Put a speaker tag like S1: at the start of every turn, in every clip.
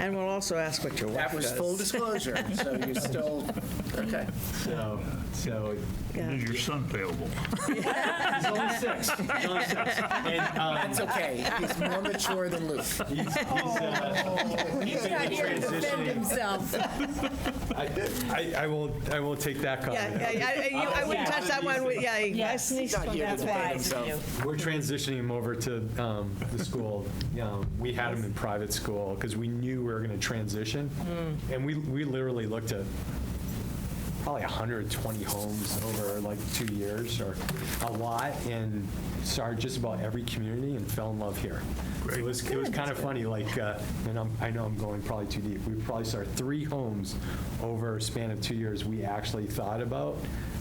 S1: And we'll also ask what your wife
S2: That was
S1: does.
S2: full disclosure, so you're still, okay.
S3: So, so
S4: Is your son payable?
S3: he's only six. He's only six. And, um,
S2: It's okay. He's more mature than Luke.
S3: he's, he's, uh, he's in
S5: Not here to defend
S3: transition.
S5: himself.
S3: I, I, I will, I will take that
S1: Yeah,
S3: comment.
S1: yeah, yeah, I- you- I wouldn't touch that one, with- yeah.
S6: Yes,
S2: Not here to
S6: that's
S2: defend
S6: wise of
S2: himself.
S6: you.
S3: We're transitioning him over to um, the school. Um, We had him in private school because we knew we were going to transition.
S1: Mm.
S3: And we, we literally looked at probably 120 homes over like two years or a lot and started just about every community and fell in love here. So It was, it was kind of funny, like, uh, and I'm, I know I'm going probably too deep. We probably saw three homes over a span of two years we actually thought about,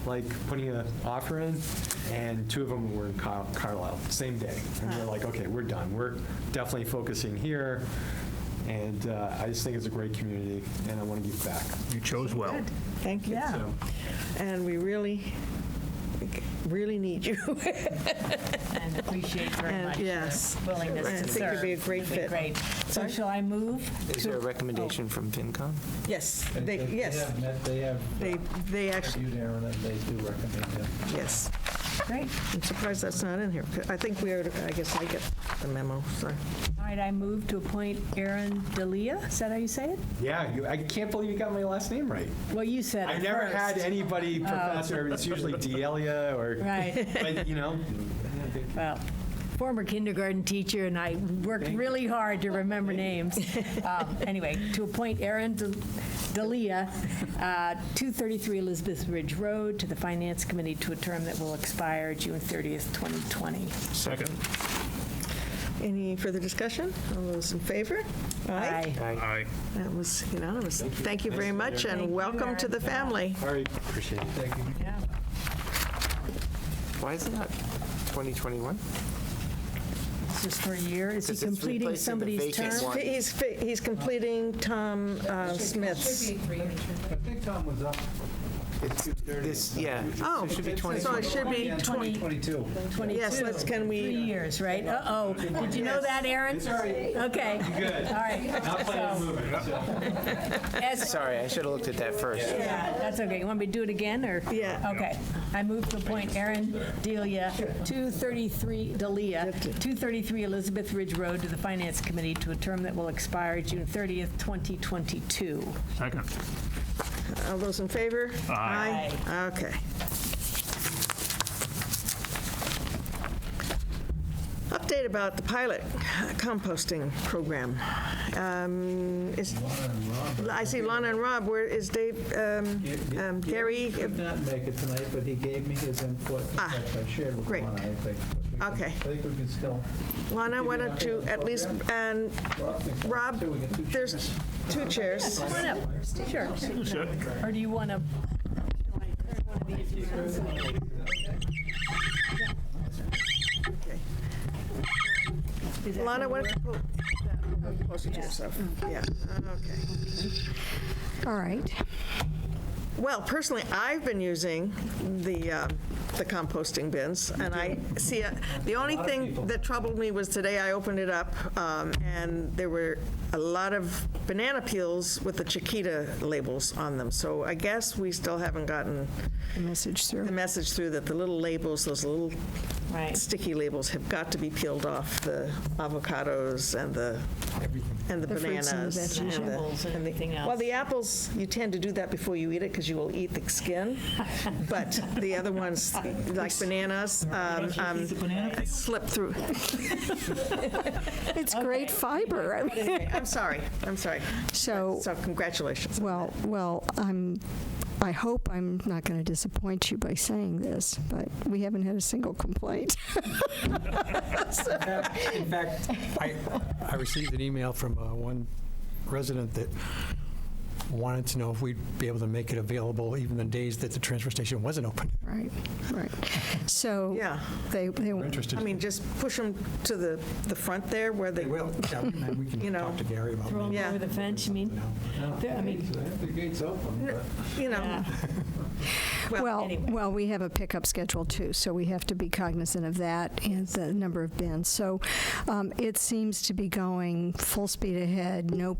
S3: like, putting an offer in. And two of them were in Car- Carlisle, same day. And we're like, okay, we're done. We're definitely focusing here. And uh, I just think it's a great community and I want to give back.
S4: You chose well.
S1: Thank you.
S3: So,
S1: And we really, really need you.
S6: And appreciate very
S1: And
S6: much
S1: yes.
S6: your willingness
S1: I
S6: to
S1: think you'd
S6: serve.
S1: be a great
S6: You'd be
S1: fit.
S6: great. So shall I move?
S2: Is there a recommendation from FinCom?
S1: Yes, they, yes,
S7: They have, they have
S1: they, they actually,
S7: viewed Aaron, and they do recommend him.
S1: yes.
S6: Great.
S1: I'm surprised that's not in here. I think we are, I guess I get the memo, so.
S6: All right, I move to appoint Aaron Delia. Is that how you say it?
S3: Yeah, you, I can't believe you got my last name right.
S6: Well, you said it
S3: I never
S6: first.
S3: had anybody professor. It's usually Delia or,
S6: Right,
S3: but you know,
S6: well, former kindergarten teacher, and I worked really hard to remember names. Um, Anyway, to appoint Aaron De- Delia, uh, 233 Elizabeth Ridge Road, to the Finance Committee to a term that will expire June 30th, 2020.
S4: Second.
S1: Any further discussion? All those in favor?
S6: Aye.
S4: Aye.
S1: That was unanimous. Thank you very much, and welcome to the family.
S3: all right, appreciate it.
S2: Why is it not 2021?
S6: It's just for a year. Is he
S2: Because it's
S6: completing
S2: replacing the
S6: somebody's
S2: vacant
S6: term?
S2: one.
S1: He's, fi- he's completing Tom uh, Smith's.
S7: I think Tom was up.
S2: This, yeah.
S1: Oh,
S7: It should be
S1: so it should be 20,
S7: 22.
S6: 22.
S1: Yes, let's- can we- uh,
S6: Three years, right? Uh-oh. Did you know that, Aaron? Okay.
S3: Good.
S6: All right.
S3: Not planning on moving. so.
S6: As-
S2: Sorry, I should have looked at that first.
S6: Yeah, that's okay. You want me to do it again, or?
S1: Yeah.
S6: Okay. I move to appoint Aaron Delia, 233, Delia, 233 Elizabeth Ridge Road to the Finance Committee to a term that will expire June 30th, 2022.
S4: Second.
S1: all those in favor?
S4: Aye.
S1: Aye. Okay. Update about the pilot composting program. Um, is- I see Lana and Rob, where is Dave, um, um, Gary?
S7: Could not make it tonight, but he gave me his input, which
S1: Ah,
S7: I shared with
S1: great.
S7: Lana, I think. We can-
S1: Okay.
S7: I think we can still.
S1: Lana, why don't you at least, and Rob,
S7: So we get two
S1: there's two chairs.
S6: Come on up. Sure. Or do you want to?
S1: Lana, why don't you pull that closer to yourself? Yeah, okay.
S8: All right.
S1: Well, personally, I've been using the, uh, the composting bins, and I see, uh, the only thing that troubled me was today I opened it up, um, and there were a lot of banana peels with the Chiquita labels on them, so I guess we still haven't gotten
S8: The message
S1: the
S8: through.
S1: message through that the little labels, those little
S6: Right.
S1: sticky labels have got to be peeled off the avocados and the, and the
S8: The fruits and the
S1: bananas.
S8: veggies,
S1: and the-
S6: Apples and everything else.
S1: Well, the apples, you tend to do that before you eat it because you will eat the skin. But the other ones, like bananas, um, um, slip through.
S8: It's great fiber. I mean,
S1: I'm sorry, I'm sorry.
S8: So,
S1: So congratulations.
S8: well, well, I'm, I hope I'm not going to disappoint you by saying this, but we haven't had a single complaint.
S7: In fact, I, I received an email from uh, one resident that wanted to know if we'd be able to make it available even the days that the transfer station wasn't open.
S8: Right, right. So
S1: Yeah,
S8: they, they,
S7: We're interested.
S1: I mean, just push them to the, the front there where they,
S7: Well, yeah, and we
S1: You
S7: can
S1: know.
S7: talk to Gary about
S6: Throw
S7: maybe.
S6: them
S1: Yeah.
S6: over the fence, you mean? I mean,
S1: you know,
S8: well,
S6: anyway.
S8: well, we have a pickup schedule too, so we have to be cognizant of that and the number of bins. So um, it seems to be going full speed ahead, no